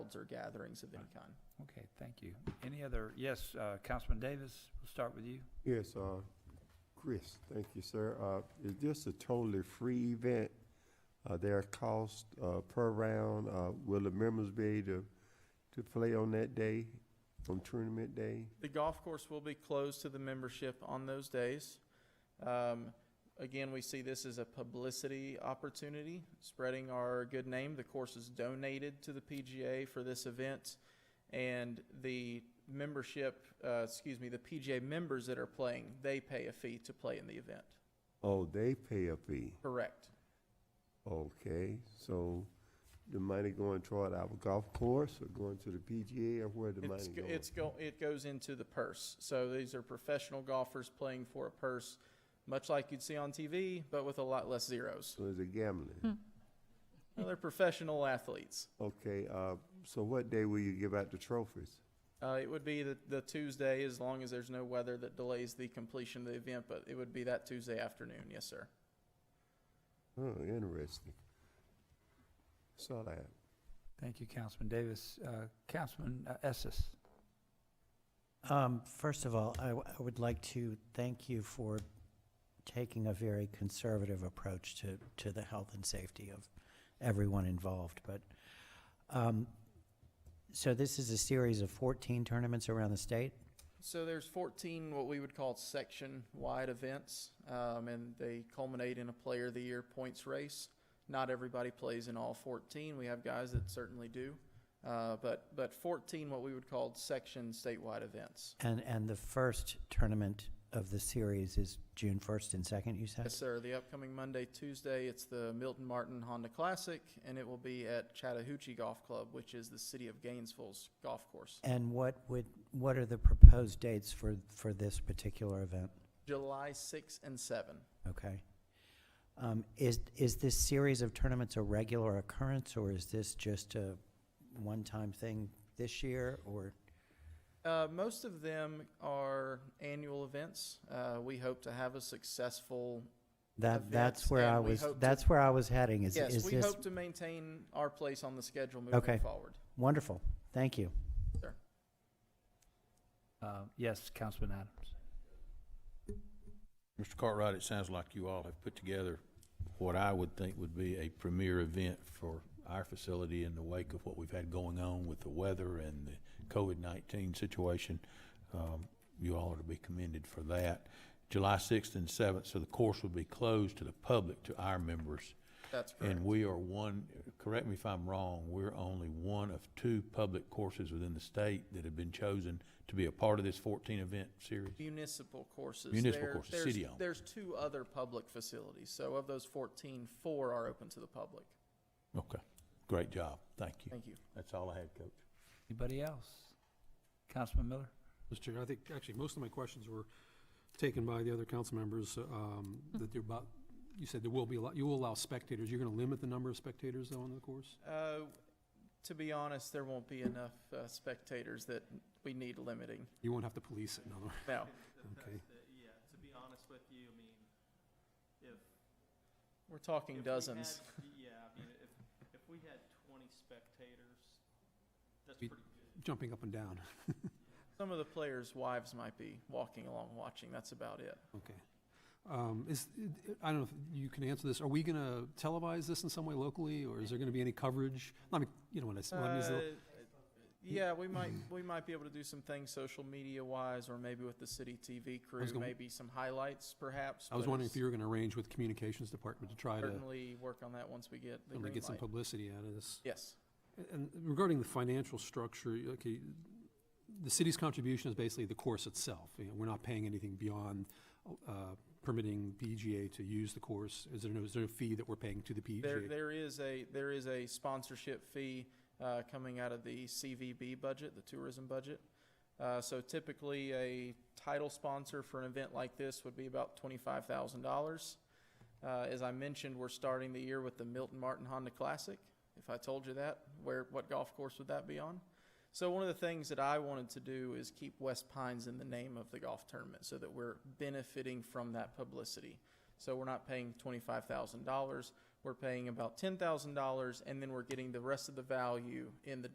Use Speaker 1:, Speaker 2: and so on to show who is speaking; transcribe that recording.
Speaker 1: crowds or gatherings of any kind.
Speaker 2: Okay, thank you. Any other, yes, uh, Councilman Davis, we'll start with you.
Speaker 3: Yes, uh, Chris, thank you, sir. Uh, is this a totally free event? Uh, there are costs, uh, per round, uh, will the members be able to, to play on that day, on tournament day?
Speaker 1: The golf course will be closed to the membership on those days. Um, again, we see this as a publicity opportunity, spreading our good name. The course is donated to the PGA for this event, and the membership, uh, excuse me, the PGA members that are playing, they pay a fee to play in the event.
Speaker 3: Oh, they pay a fee,
Speaker 1: Correct.
Speaker 3: okay, so the money going toward our golf course or going to the PGA or where the
Speaker 1: It's,
Speaker 3: money
Speaker 1: go-
Speaker 3: going?
Speaker 1: it's go, it goes into the purse. So these are professional golfers playing for a purse, much like you'd see on TV, but with a lot less zeros.
Speaker 3: So it's a gambling,
Speaker 1: Well, they're professional athletes.
Speaker 3: okay, uh, so what day will you give out the trophies?
Speaker 1: Uh, it would be the, the Tuesday, as long as there's no weather that delays the completion of the event, but it would be that Tuesday afternoon, yes, sir.
Speaker 3: Oh, interesting. That's all I have.
Speaker 2: Thank you, Councilman Davis. Uh, Councilman uh, Essis.
Speaker 4: Um, First of all, I w- I would like to thank you for taking a very conservative approach to, to the health and safety of everyone involved, but, um, so this is a series of 14 tournaments around the state?
Speaker 1: So there's 14 what we would call section-wide events, um, and they culminate in a Player of the Year points race. Not everybody plays in all 14. We have guys that certainly do, uh, but but 14 what we would call section statewide events.
Speaker 4: And, and the first tournament of the series is June 1st and 2nd, you said?
Speaker 1: Yes, sir. The upcoming Monday, Tuesday, it's the Milton Martin Honda Classic, and it will be at Chattahoochee Golf Club, which is the city of Gainesville's golf course.
Speaker 4: And what would, what are the proposed dates for, for this particular event?
Speaker 1: July 6 and 7.
Speaker 4: Okay. Um, Is, is this series of tournaments a regular occurrence, or is this just a one-time thing this year, or?
Speaker 1: Uh, most of them are annual events. Uh, we hope to have a successful.
Speaker 4: That, that's
Speaker 1: Events,
Speaker 4: where I
Speaker 1: and we
Speaker 4: was,
Speaker 1: hope to-
Speaker 4: that's where I was heading, is,
Speaker 1: yes,
Speaker 4: is
Speaker 1: we
Speaker 4: this,
Speaker 1: hope to maintain our place on the schedule moving
Speaker 4: Okay.
Speaker 1: forward.
Speaker 4: wonderful, thank you.
Speaker 1: Sir.
Speaker 2: Uh, Yes, Councilman Adams.
Speaker 5: Mr. Cartwright, it sounds like you all have put together what I would think would be a premier event for our facility in the wake of what we've had going on with the weather and the COVID-19 situation. Um, You all are to be commended for that. July 6th and 7th, so the course will be closed to the public, to our members.
Speaker 1: That's correct.
Speaker 5: And we are one, correct me if I'm wrong, we're only one of two public courses within the state that have been chosen to be a part of this 14-event series.
Speaker 1: Municipal courses.
Speaker 5: Municipal courses,
Speaker 1: there's,
Speaker 5: city-owned.
Speaker 1: There's two other public facilities. So of those 14, four are open to the public.
Speaker 5: Okay, great job, thank you.
Speaker 1: Thank you.
Speaker 5: That's all I had, Coach.
Speaker 2: Anybody else? Councilman Miller?
Speaker 6: Mr. Chair, I think actually most of my questions were taken by the other council members, um,
Speaker 1: Hmm.
Speaker 6: that you're about, you said there will be, a lot. you will allow spectators. You're gonna limit the number of spectators though on the course?
Speaker 1: Uh, to be honest, there won't be enough uh, spectators that we need limiting.
Speaker 6: You won't have to police it, in other words,
Speaker 1: Now,
Speaker 6: okay?
Speaker 7: Yeah, to be honest with you, I mean, if.
Speaker 1: we're
Speaker 7: if we
Speaker 1: talking
Speaker 7: had-
Speaker 1: dozens.
Speaker 7: Yeah, I mean, if, if we had twenty spectators, that's
Speaker 6: We-
Speaker 7: pretty good.
Speaker 6: Jumping up and down,
Speaker 1: Some of the players' wives might be walking along watching. That's about it.
Speaker 6: okay. Um, is, I don't know if you can answer this. Are we gonna televise this in some way locally, or is there gonna be any coverage? I mean, you know, when I, s- when I mean, is
Speaker 1: Uh,
Speaker 6: it-
Speaker 1: yeah, we might we might be able to do some things social media wise, or maybe with the city TV crew,
Speaker 6: gonna-
Speaker 1: maybe some highlights perhaps.
Speaker 6: I was
Speaker 1: but
Speaker 6: wondering if
Speaker 1: it's
Speaker 6: you were gonna arrange with communications department to try to,
Speaker 1: certainly work on that once we get the
Speaker 6: um, to
Speaker 1: green
Speaker 6: get some
Speaker 1: light.
Speaker 6: publicity out of this.
Speaker 1: yes,
Speaker 6: And regarding the financial structure, okay, the city's contribution is basically the course itself. You know, we're not paying anything beyond uh, permitting PGA to use the course. Is there no, is there a fee that we're paying to the E
Speaker 1: there
Speaker 6: PGA?
Speaker 1: there is a there is a sponsorship fee uh, coming out of the CVB budget, the tourism budget. Uh, so typically, a title sponsor for an event like this would be about twenty five thousand dollars. Uh, as I mentioned, we're starting the year with the Milton Martin Honda Classic. If I told you that, where what golf course would that be on? So one of the things that I wanted to do is keep West Pines in the name of the golf tournament so that we're benefiting from that publicity. So we're not paying twenty-five thousand dollars, we're paying about ten thousand dollars, and then we're getting the rest of the value in the